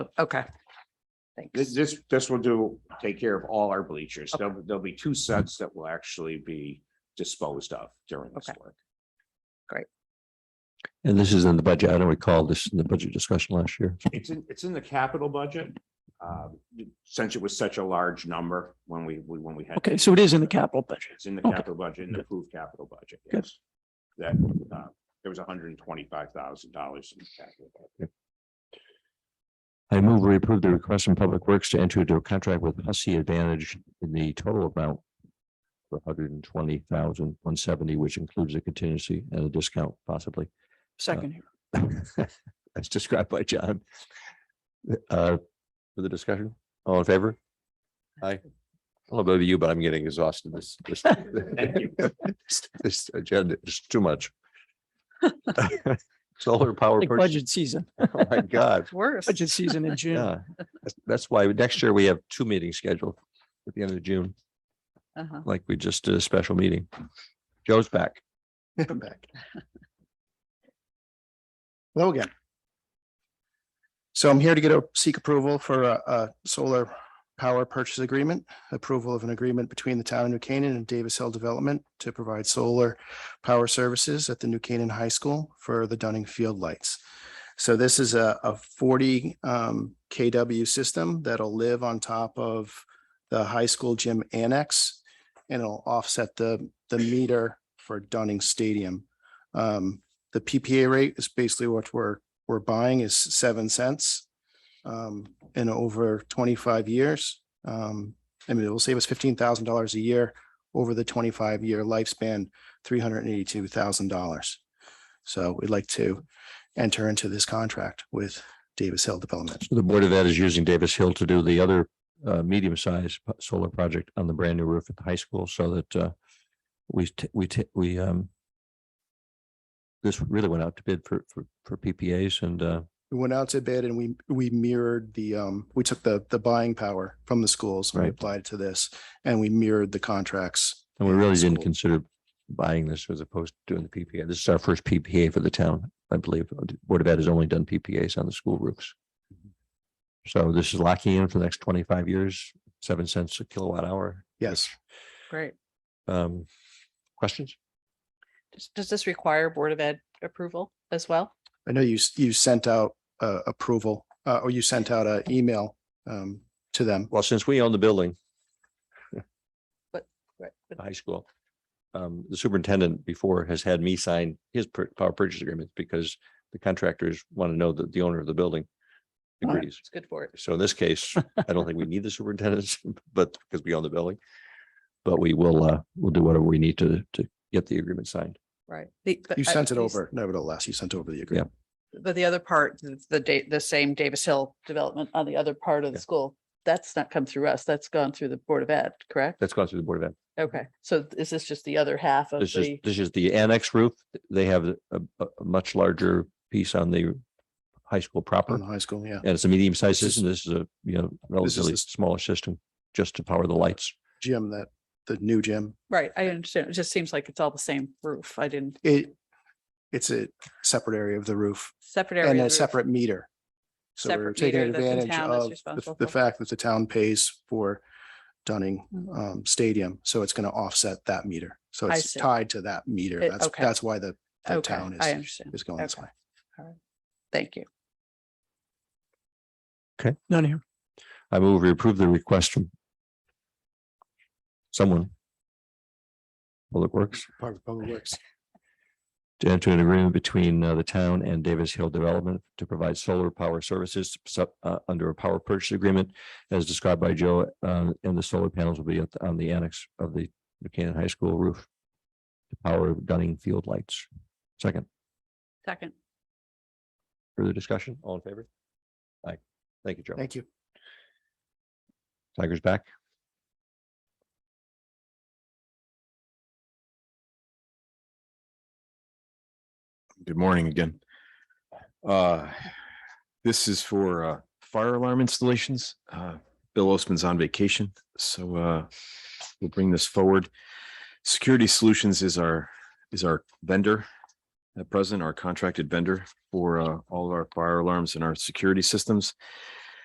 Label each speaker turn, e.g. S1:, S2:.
S1: Okay. Thanks.
S2: This, this, this will do, take care of all our bleachers. There'll, there'll be two sets that will actually be disposed of during this
S1: Okay.
S2: work.
S3: And this is in the budget. I don't recall this in the budget discussion last year.
S2: It's in, it's in the capital budget. uh, Since it was such a large number when we, we- when we had.
S4: Okay, so it is in the capital budget.
S2: It's in the
S4: Okay.
S2: capital budget, in the approved capital budget,
S4: Good.
S2: yes. That, uh, there was hundred and twenty-five thousand dollars in the capital. budget.
S3: I move we approve the request from Public Works to enter into a contract with Hussey Advantage in the total amount for 120,170, which includes a contingency and a discount possibly,
S4: Second here.
S3: as described by John. Uh, for the discussion, all in favor? Aye. I don't know about you, but I'm getting exhausted this, this. This agenda is too much. Solar power.
S4: Like
S3: purchase-
S4: budget season,
S3: Oh, my God.
S1: It's worse.
S4: budget season in June.
S3: Yeah, that's- that's why next year we have two meetings scheduled at the end of June,
S1: Uh-huh.
S3: like we just did a special meeting. Joe's back.
S5: I'm back. Hello again. So I'm here to get a, seek approval for a, a solar power purchase agreement, approval of an agreement between the town of New Canaan and Davis Hill Development to provide solar power services at the New Canaan High School for the Dunning Field Lights. So this is a, a forty, um, KW system that'll live on top of the high school gym annex and it'll offset the, the meter for Dunning Stadium. Um, the PPA rate is basically what we're, we're buying is seven cents. Um, in over twenty-five years, um, I mean, it will save us fifteen thousand dollars a year over the twenty-five year lifespan, three hundred and eighty-two thousand dollars. So we'd like to enter into this contract with Davis Hill Development.
S3: The Board of Ed is using Davis Hill to do the other uh, medium-sized p- solar project on the brand new roof at the high school so that uh, we, t- we, t- we um this really went out to bid for, for, for PPAs and uh,
S5: We went out to bid and we, we mirrored the, um, we took the, the buying power from the schools and we
S3: Right.
S5: applied it to this. And we mirrored the contracts.
S3: and we really didn't
S5: Cool.
S3: consider buying this as opposed to doing the PPA. This is our first PPA for the town, I believe. The Board of Ed has only done PPAs on the school roofs. So this is locking in for the next twenty-five years, seven cents a kilowatt hour.
S5: Yes.
S1: Great.
S3: Um, questions?
S1: Does- Does this require Board of Ed approval as well?
S5: I know you, s- you sent out, uh, approval, uh, or you sent out an email, um, to them.
S3: Well, since we own the building,
S1: Right. but-
S3: the high school, um, the superintendent before has had me sign his per- power purchase agreement because the contractors want to know that the owner of the building
S4: Right.
S3: agrees.
S1: uh, It's good for it.
S3: So in this case, I don't think we need the superintendents, but because we own the building. But we will, uh, we'll do whatever we need to, to get the agreement signed.
S1: Right. The- but
S5: You
S1: I-
S5: sent it
S1: these-
S5: over nevertheless. You sent over the agreement.
S1: But the other part, the- the date, the same Davis Hill development on the other part of the
S3: Yeah.
S1: school, that's not come through us. That's gone through the Board of Ed, correct?
S3: That's gone through the Board of Ed.
S1: Okay. So is this just the other half of
S3: This is,
S1: the?
S3: this is the annex roof. They have a, a a much larger piece on the high school proper.
S5: On the high school, yeah.
S3: And it's a medium sized
S5: This is-
S3: system. This is a, you know, relatively
S5: the-
S3: smaller system just to power the lights.
S5: Gym that, the new gym,
S1: Right. I understand. It just seems like it's all the same roof. I didn't
S5: it, it's a separate area of the roof
S1: separate area.
S5: and
S1: of
S5: a
S1: the roof.
S5: separate meter. So we're
S1: Separate
S5: taking
S1: meter that the
S5: advantage
S1: town is
S5: of the,
S1: responsible
S5: the
S1: for.
S5: fact that the town pays for Dunning
S1: Mm-hmm.
S5: um Stadium, so it's going to offset that meter. So
S1: I
S5: it's
S1: see.
S5: tied to that meter.
S1: It-
S5: That's,
S1: okay.
S5: that's why the, the
S1: Okay,
S5: town
S1: I
S5: is,
S1: understand.
S5: is going this
S1: Okay.
S5: way.
S1: Thank you.
S4: None here.
S3: I move we approve the request from someone. Public Works.
S5: Part of Public Works.
S3: to enter an agreement between uh, the town and Davis Hill Development to provide solar power services sup- uh, under a power purchase agreement as described by Joe, uh, and the solar panels will be at- on the annex of the Buchanan High School roof to power Dunning Field lights. Second,
S1: Second.
S3: further discussion, all in favor? Aye. Thank you, Joe.
S5: Thank you.
S3: Tiger's back.
S6: Good morning again. Uh, This is for uh, fire alarm installations. Uh, Bill Osman's on vacation, so uh, we'll bring this forward. Security Solutions is our, is our vendor at present, our contracted vendor for uh, all of our fire alarms and our security systems.